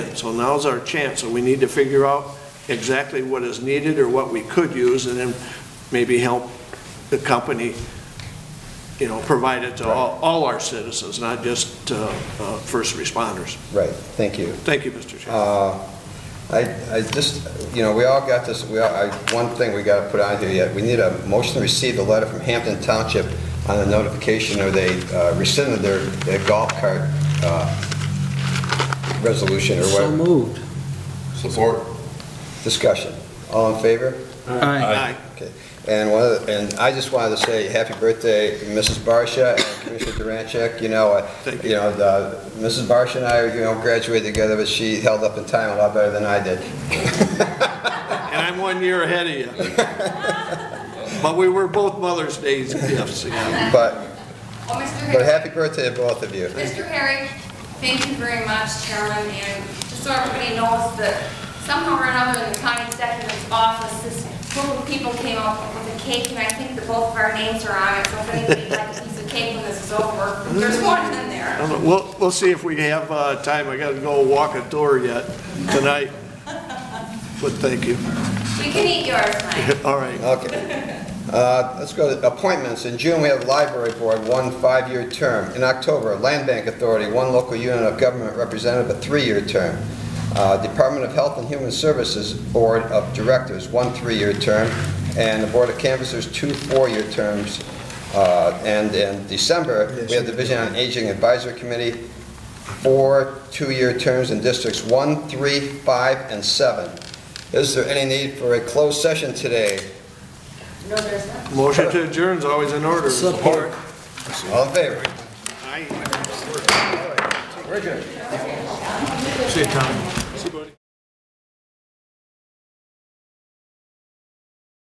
plan. So now's our chance, so we need to figure out exactly what is needed or what we could use, and then maybe help the company, you know, provide it to all, all our citizens, not just uh, uh, first responders. Right, thank you. Thank you, Mr. Chair. Uh, I, I just, you know, we all got this, we all, I, one thing we got to put on here yet, we need a motion to receive the letter from Hampton Township on the notification or they uh, rescinded their, their golf cart, uh, resolution or So whatever. moved. Support. Discussion. All in favor? Aye. Aye. And one of the, and I just wanted to say happy birthday, Mrs. Barsha and Commissioner Durancheck. You know, uh, Thank you know, the, Mrs. Barsha and I, you know, graduated together, but she held up in time a lot better than I did. And I'm one year ahead of you. But we were both Mother's Day's gifts, yeah. But, Oh, but Mr. Harry, happy birthday to both of you. Mr. Harry, thank you very much, Chairman, and just so everybody knows that somehow or another in the county executive's office, this group of people came up with a cake, and I think that both of our names are on it, so if anybody'd like a piece of cake when this is over, there's one in there. I don't know. We'll, we'll see if we have uh, time. I gotta go walk a door yet tonight. But thank you. You can eat yours, Mike. All right. Okay. Uh, Let's go to appointments. In June, we have Library Board, one five-year term. In October, Land Bank Authority, one local unit of government representative, a three-year term. Uh, Department of Health and Human Services Board of Directors, one three-year term. And the Board of Canvassers, two four-year terms. Uh, And in December, we have Division on Aging Advisory Committee, four two-year terms in districts one, three, five, and seven. Is there any need for a closed session today? No, there's not. Motion to adjourn is always in order. Support. All in favor? Aye. We're adjourned. See you, Tom.